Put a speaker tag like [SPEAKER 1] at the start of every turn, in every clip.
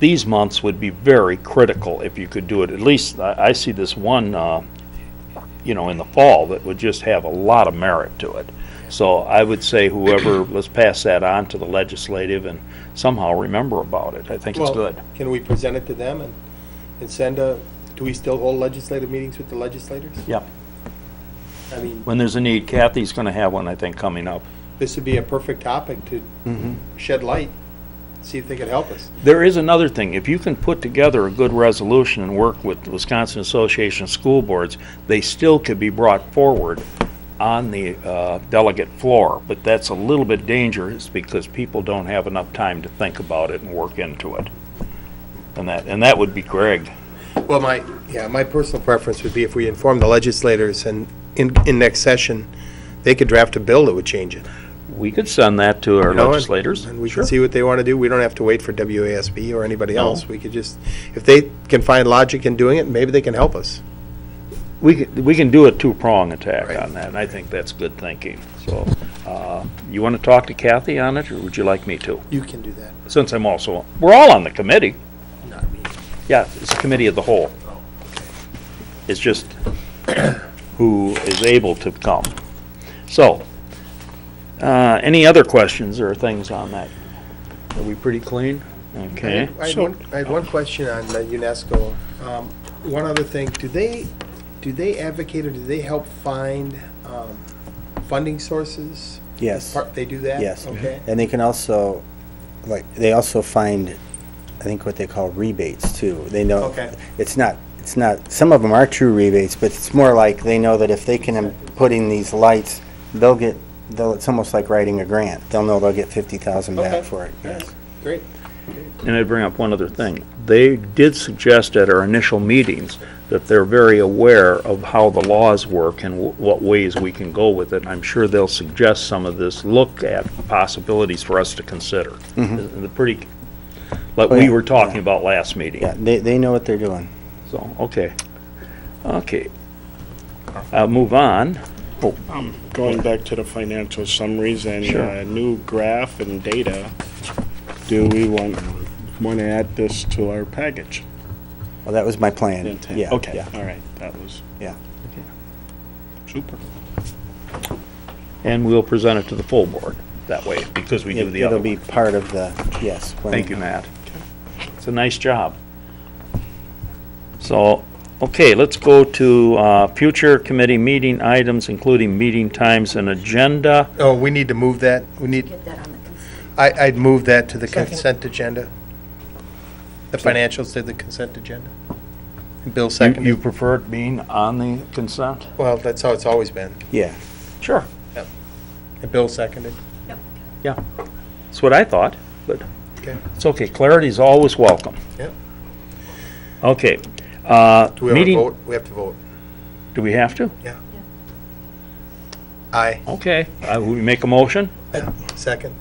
[SPEAKER 1] these months would be very critical if you could do it. At least, I, I see this one, uh, you know, in the fall that would just have a lot of merit to it. So I would say whoever, let's pass that on to the legislative and somehow remember about it. I think it's
[SPEAKER 2] Well,
[SPEAKER 1] good.
[SPEAKER 2] Can we present it to them and, and send a, do we still hold legislative meetings with the legislators?
[SPEAKER 1] Yep.
[SPEAKER 2] I mean,
[SPEAKER 1] When there's a need, Kathy's gonna have one, I think, coming up.
[SPEAKER 2] this would be a perfect topic to shed light, see if they could help us.
[SPEAKER 1] There is another thing. If you can put together a good resolution and work with the Wisconsin Association of School Boards, they still could be brought forward on the uh, delegate floor, but that's a little bit dangerous because people don't have enough time to think about it and work into it. And that, and that would be Greg.
[SPEAKER 2] Well, my, yeah, my personal preference would be if we inform the legislators and in, in next session, they could draft a bill that would change it.
[SPEAKER 1] We could send that to our
[SPEAKER 2] you know, and-
[SPEAKER 1] legislators.
[SPEAKER 2] And we
[SPEAKER 1] Sure.
[SPEAKER 2] can see what they want to do. We don't have to wait for WASB or anybody
[SPEAKER 1] No.
[SPEAKER 2] else. We could just, if they can find logic in doing it, maybe they can help us.
[SPEAKER 1] We can, we can do a two-prong attack
[SPEAKER 2] Right.
[SPEAKER 1] on that, and I think that's good thinking. So, uh, you want to talk to Kathy on it, or would you like me to?
[SPEAKER 2] You can do that,
[SPEAKER 1] Since I'm also, we're all on the committee.
[SPEAKER 2] not me.
[SPEAKER 1] Yeah, it's a committee of the whole. It's just who is able to come. So, uh, any other questions or things on that? Are we pretty clean? Okay.
[SPEAKER 2] I had one, I had one question on uh, UNESCO. Um, One other thing, do they, do they advocate or do they help find um, funding sources?
[SPEAKER 3] Yes.
[SPEAKER 2] Part- They do that?
[SPEAKER 3] Yes. Mm-hmm.
[SPEAKER 2] Okay.
[SPEAKER 3] And they can also, like, they also find, I think what they call rebates too. They know.
[SPEAKER 2] Okay.
[SPEAKER 3] It's not, it's not, some of them are true rebates, but it's more like they know that if they can um, put in these lights, they'll get, they'll, it's almost like writing a grant. They'll know they'll get fifty thousand
[SPEAKER 2] Okay.
[SPEAKER 3] back for it.
[SPEAKER 2] Yes.
[SPEAKER 3] Mm-hmm.
[SPEAKER 2] Great.
[SPEAKER 1] And I'd bring up one other thing. They did suggest at our initial meetings that they're very aware of how the laws work and wh- what ways we can go with it. I'm sure they'll suggest some of this, look at possibilities for us to consider. The pretty, like
[SPEAKER 3] Oh,
[SPEAKER 1] we
[SPEAKER 3] Mm-hmm. yeah,
[SPEAKER 1] were talking about last meeting.
[SPEAKER 3] Yeah, they, they know what they're doing.
[SPEAKER 1] So, okay. Okay. I'll move on.
[SPEAKER 4] Going back to the financial summaries and
[SPEAKER 1] Sure.
[SPEAKER 4] uh, new graph and data, do we want, want to add this to our package?
[SPEAKER 3] Well, that was my plan.
[SPEAKER 4] Intent.
[SPEAKER 3] Yeah.
[SPEAKER 4] Okay,
[SPEAKER 3] yeah,
[SPEAKER 4] all right, that was
[SPEAKER 3] Yeah.
[SPEAKER 4] super.
[SPEAKER 1] And we'll present it to the full board that way, because we do
[SPEAKER 3] It-
[SPEAKER 1] the other
[SPEAKER 3] It'll be
[SPEAKER 1] one.
[SPEAKER 3] part of the, yes. when-
[SPEAKER 1] Thank you, Matt. It's a nice job. So, okay, let's go to uh, future committee meeting items, including meeting times and agenda.
[SPEAKER 2] Oh, we need to move that. We need,
[SPEAKER 5] Get that on the consent.
[SPEAKER 2] I, I'd move that to the
[SPEAKER 5] Second.
[SPEAKER 2] consent agenda. The financials to the consent agenda.
[SPEAKER 1] You-
[SPEAKER 2] Bill
[SPEAKER 1] You
[SPEAKER 2] seconded.
[SPEAKER 1] prefer it being on the consent?
[SPEAKER 2] Well, that's how it's always been.
[SPEAKER 3] Yeah.
[SPEAKER 1] Sure.
[SPEAKER 2] And Bill seconded.
[SPEAKER 1] Yeah. That's what I thought, but
[SPEAKER 2] Okay.
[SPEAKER 1] it's okay. Clarity's always welcome.
[SPEAKER 2] Yep.
[SPEAKER 1] Okay. uh,
[SPEAKER 2] Do we have a
[SPEAKER 1] Meeting.
[SPEAKER 2] vote? We have to vote.
[SPEAKER 1] Do we have to?
[SPEAKER 2] Aye.
[SPEAKER 1] Okay, I will Uh, make a motion.
[SPEAKER 2] Second.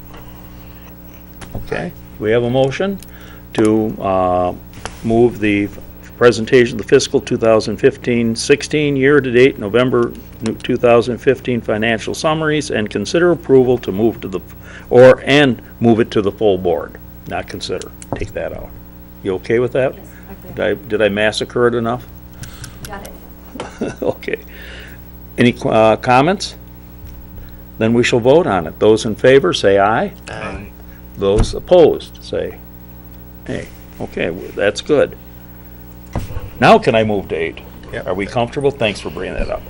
[SPEAKER 1] Okay. We have a motion to uh, move the f- presentation of the fiscal 2015-16 year-to-date November nu- 2015 financial summaries and consider approval to move to the, f- or, and move it to the full board. Not consider, take that out. You okay with that?
[SPEAKER 5] Yes,
[SPEAKER 1] Did
[SPEAKER 5] okay.
[SPEAKER 1] I, did I massacre it enough?
[SPEAKER 5] Got it.
[SPEAKER 1] Okay. Any qu- uh, comments? Then we shall vote on it. Those in favor, say aye.
[SPEAKER 2] Aye.
[SPEAKER 1] Those opposed, say nay. Okay, w- that's good. Now can I move to eight?
[SPEAKER 2] Yep.
[SPEAKER 1] Are we comfortable? Thanks for bringing that up.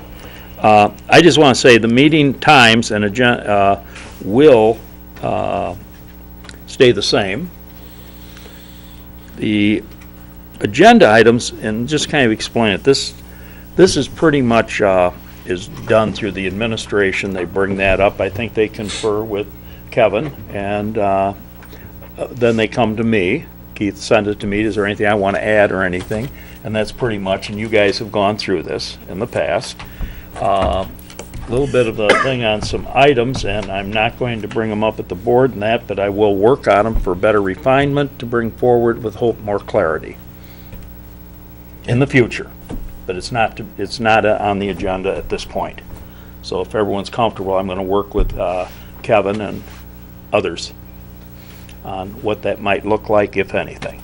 [SPEAKER 1] Uh, I just want to say, the meeting times and agenda will uh, stay the same. The agenda items, and just kind of explain it, this, this is pretty much, uh, is done through the administration, they bring that up, I think they confer with Kevin, and, uh, then they come to me, Keith sends it to me, is there anything I want to add or anything? And that's pretty much, and you guys have gone through this in the past. A Little bit of a thing on some items, and I'm not going to bring them up at the board and that, but I will work on them for better refinement to bring forward with hope more clarity in the future, but it's not, to- it's not uh, on the agenda at this point. So if everyone's comfortable, I'm going to work with uh, Kevin and others on what that might look like, if anything.